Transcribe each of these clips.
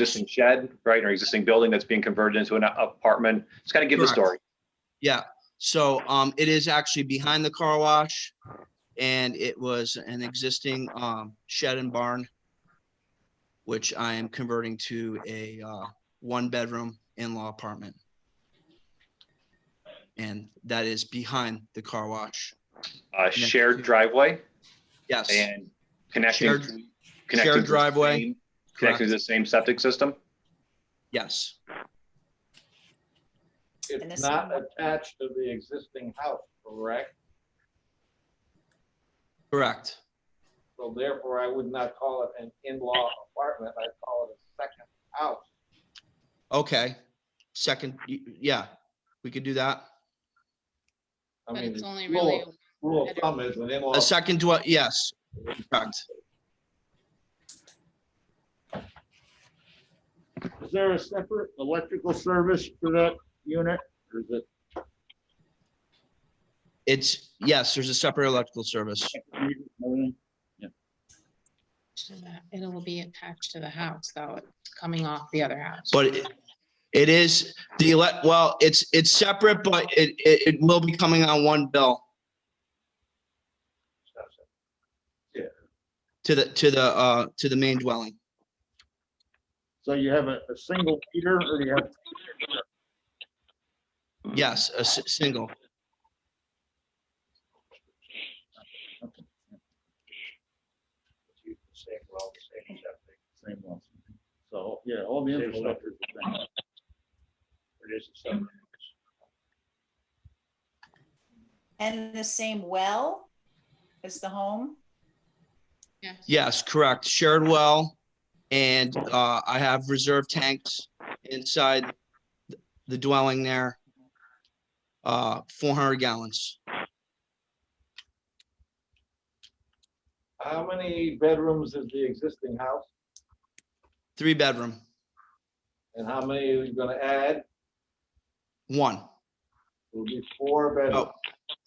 existing shed, right, or existing building that's being converted into an apartment. Just kind of give the Correct. story. So um, it is actually behind the car wash and it was an existing um, shed and barn, which I am converting to a uh, one-bedroom in-law apartment. And that is behind the car wash. Uh, shared driveway Yes, and connecting. Shared- connecting to the driveway. same- Connecting to the same septic system. yes, And It's this not one- attached to the existing house, correct? correct. So therefore, I would not call it an in-law apartment, I'd call it a second house. Okay, second, y- yeah, we could do that. I But mean, it's only rule really, of- Rule of thumb is an in-law. A second, dwell- yes, correct. Is there a separate electrical service for that unit? Or is it, It's, yes, there's a separate electrical service. and it'll be attached to the house, though, it's coming off the other house. But it- it is the elect, well, it's, it's separate, but it, it, it will be coming on one bill to the, to the, uh, to the main dwelling. so you have a, a single meter or you have? Yes, a s- single. Same well, same septic. Same well. So, yeah, all the infrastructure. is the same. It is a separate. And the same well as the home? Yes, correct. Shared well. And, uh, I have reserve tanks inside the dwelling there. Uh, four hundred gallons. How many bedrooms is the existing house Three bedroom, and how many are you gonna add? one. Will be four bedrooms. Oh,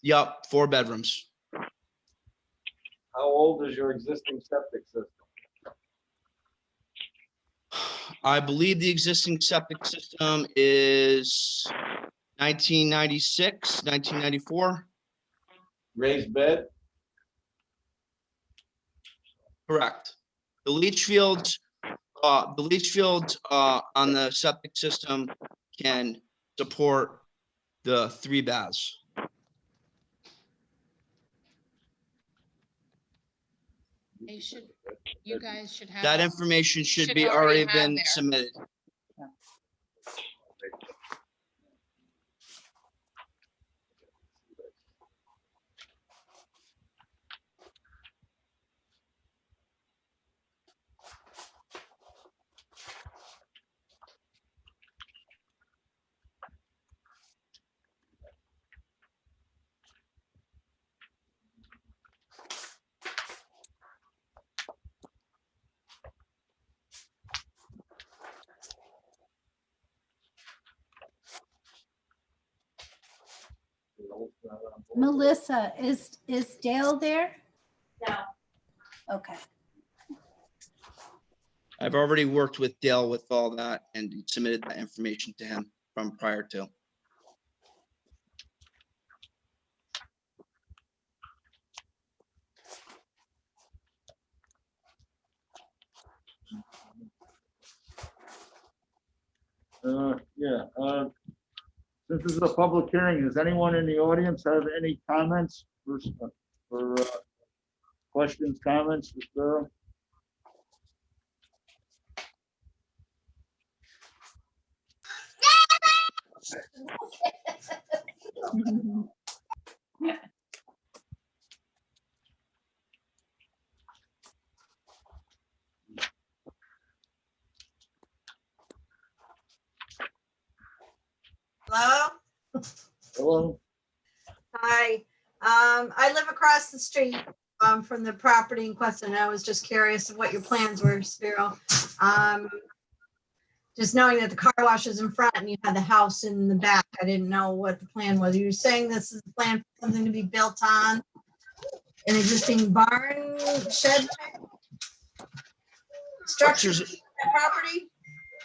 Yup, four bedrooms. How old is your existing septic system? I believe the existing septic system is 1996, 1994. Raised bed? Correct. The leach fields, uh, the leach fields, uh, on the septic system can support the three baths. They should, you guys should have. That information should Should be already already have been there. submitted. Melissa, is, is Dale there? No. Okay, I've already worked with Dale with all that and submitted that information to him from prior to. Uh, yeah, uh, since this is a public hearing, does anyone in the audience have any comments or, s- or uh, questions, comments, Mr. Burrow? Hello? Hello? Hi. Um, I live across the street, um, from the property in question. and I was just curious of what your plans were, Spiro. Um, just knowing that the car wash is in front and you had the house in the back, I didn't know what the plan was. You were saying this is a plan for something to be built on an existing barn shed? type Structures, Structures, property?